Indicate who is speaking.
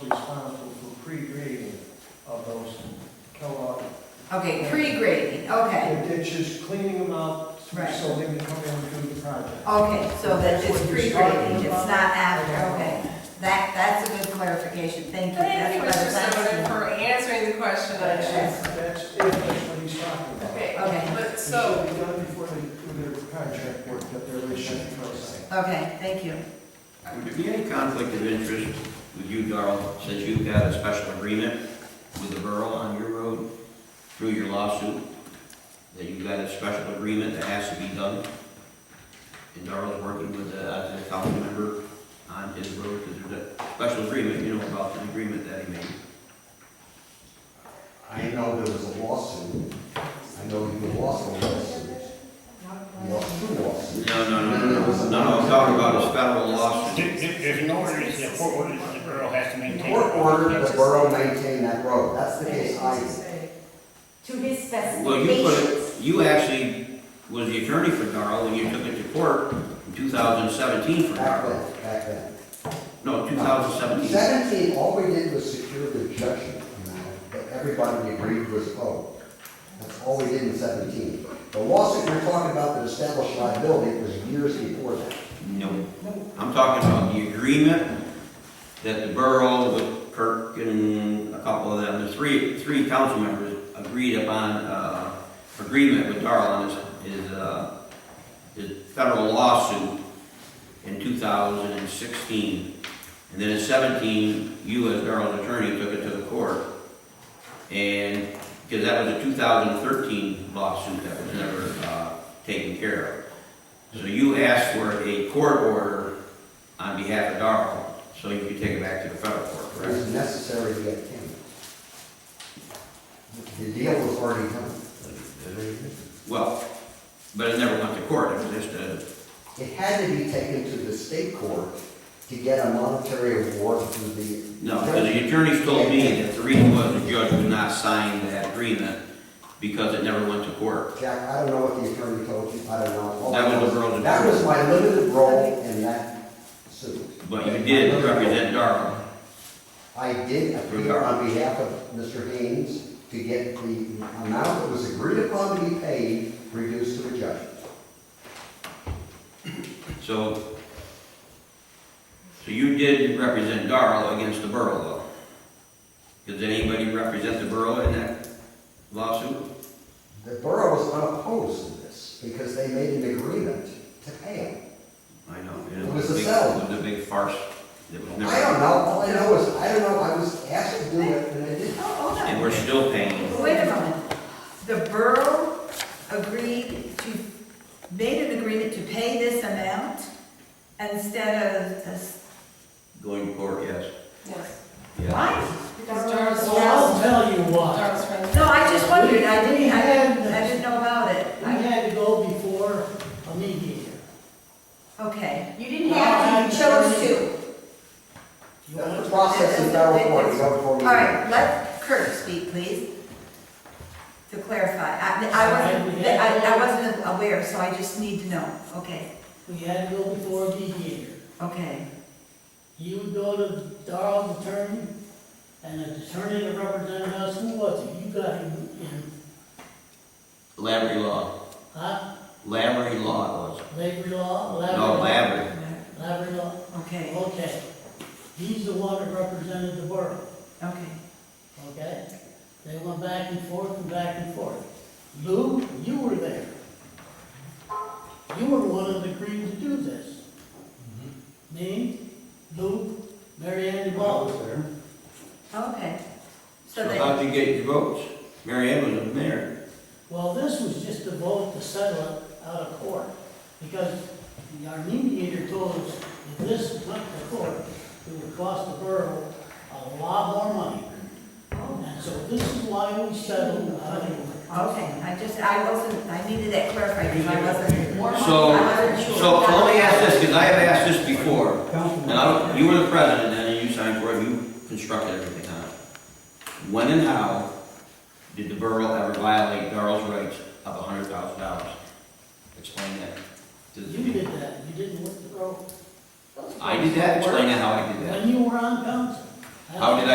Speaker 1: Okay, pre-grading, okay,
Speaker 2: It- It's just cleaning them out
Speaker 1: Right.
Speaker 2: so they can come in and do the project.
Speaker 1: okay, so that it's
Speaker 2: That's what you're
Speaker 1: pre-grading, it's
Speaker 2: talking about.
Speaker 1: not after, okay. That, that's a good clarification, thank you.
Speaker 3: Thank you, Mr.
Speaker 1: That's what I was
Speaker 3: Sonnen,
Speaker 1: asking.
Speaker 3: for answering the question I
Speaker 2: That's,
Speaker 3: asked.
Speaker 2: that's it, that's what he's talking about.
Speaker 3: Okay,
Speaker 1: Okay.
Speaker 3: but
Speaker 2: It
Speaker 3: so,
Speaker 2: should be done before they do their contract work, that they're really should process.
Speaker 1: Okay, thank you.
Speaker 4: Would there be any conflict of interest with you, Darrell, since you've got a special agreement with the borough on your road through your lawsuit? That you've got a special agreement that has to be done? And Darrell's working with the, as a council member on his road, because there's a special agreement, you know, about the agreement that he made.
Speaker 5: I know there was a lawsuit. I know you lost a lawsuit. You lost two lawsuits.
Speaker 4: No, no, no, no, no, no, I'm talking about his federal lawsuit.
Speaker 6: If, if there's an order, it's a court order, the borough has to
Speaker 5: The
Speaker 6: maintain.
Speaker 5: court ordered the borough maintain that road. That's the case I,
Speaker 7: to his
Speaker 4: Well, you put
Speaker 7: specifications.
Speaker 4: it, you actually was the attorney for Darrell when you took it to court in 2017 for
Speaker 5: back
Speaker 4: Darrell.
Speaker 5: then, back then.
Speaker 4: No, 2017.
Speaker 5: Seventeen, all we did was secure the judgment amount that everybody agreed was owed. That's all we did in seventeen. The lawsuit you're talking about that established liability was years before that.
Speaker 4: No, I'm talking about the agreement that the borough with Kirk and a couple of them, the three, three council members agreed upon, uh, agreement with Darrell on his, his, uh, his federal lawsuit in 2016. And then in 17, you as Darrell's attorney took it to the court. And, because that was a 2013 lawsuit that was never, uh, taken care of. So you asked for a court order on behalf of Darrell, so you could take it back to the federal court,
Speaker 5: It
Speaker 4: correct?
Speaker 5: was necessary to get him. The deal was already done.
Speaker 4: Well, but it never went to court, it was just a,
Speaker 5: It had to be taken to the state court to get a monetary award to the.
Speaker 4: no, because the attorneys told me that the reason was the judge would not sign that agreement because it never went to court.
Speaker 5: Jack, I don't know what the attorney told you, I don't know.
Speaker 4: That was the girl
Speaker 5: That was
Speaker 4: that,
Speaker 5: my limited role in that suit.
Speaker 4: but you did represent Darrell.
Speaker 5: I did appear on behalf of Mr. Haynes to get the amount that was agreed upon to be paid reduced to a judgment.
Speaker 4: So, so you did represent Darrell against the borough though? Did anybody represent the borough in that lawsuit?
Speaker 5: The borough was unopposed to this because they made an agreement to pay him.
Speaker 4: I know.
Speaker 5: It was a
Speaker 4: big-
Speaker 5: settlement.
Speaker 4: It was a big farce. It was
Speaker 5: I don't
Speaker 4: never,
Speaker 5: know, all I know is, I don't know, I was asked to do it and I didn't.
Speaker 1: Oh, hold on.
Speaker 4: and we're still paying.
Speaker 1: Wait a moment. The borough agreed to, made an agreement to pay this amount instead of this.
Speaker 4: Going to court, yes.
Speaker 3: yes.
Speaker 4: Yeah.
Speaker 1: Why?
Speaker 3: Because Darrell's,
Speaker 2: So I'll tell you what,
Speaker 3: Darrell's friend.
Speaker 1: No, I just wondered, I
Speaker 2: We
Speaker 1: didn't, I
Speaker 2: had
Speaker 1: didn't, I
Speaker 2: the-
Speaker 1: didn't know about it.
Speaker 2: we
Speaker 1: I-
Speaker 2: had to go before a mediator.
Speaker 1: Okay,
Speaker 7: You didn't have to, you chose to.
Speaker 2: You
Speaker 5: That's the
Speaker 2: know?
Speaker 5: process in federal court, you go before
Speaker 1: all
Speaker 5: me.
Speaker 1: right, let Kurt speak, please, to clarify. I, I wasn't, I, I wasn't aware, so I just need to know. Okay,
Speaker 2: We had to go before a mediator.
Speaker 1: okay,
Speaker 2: You would go to Darrell's attorney, and the attorney that represented us, who was it? You got him in,
Speaker 4: Lavery law.
Speaker 2: huh?
Speaker 4: Lavery law it
Speaker 2: Labor law,
Speaker 4: was.
Speaker 2: labor law?
Speaker 4: No, Lavery.
Speaker 2: Labor law,
Speaker 1: okay,
Speaker 2: okay. He's the one that represented the borough.
Speaker 1: okay.
Speaker 2: okay? They went back and forth and back and forth. Lou, you were there. You were the one that agreed to do this. Me, Lou, Mary Ann, and Bob.
Speaker 1: Okay. So
Speaker 4: So
Speaker 1: they,
Speaker 4: how'd you get your votes? Mary Ann was the mayor.
Speaker 2: Well, this was just a vote to settle it out of court, because our mediator told us if this went to court, it would cost the borough a lot more money. And so this is why we settled out of court.
Speaker 1: okay, I just, I wasn't, I needed that clarified, because I wasn't, I
Speaker 4: So,
Speaker 1: wasn't sure.
Speaker 4: so let me ask this, because I have asked this before. And I don't, you were the president then, and you signed for it, you constructed everything on it. When and how did the borough ever violate Darrell's rights of a hundred thousand dollars? Explain that. to the
Speaker 2: You did that, you didn't work the road.
Speaker 4: I did that, explain how I did that.
Speaker 2: When you were on council.
Speaker 4: How did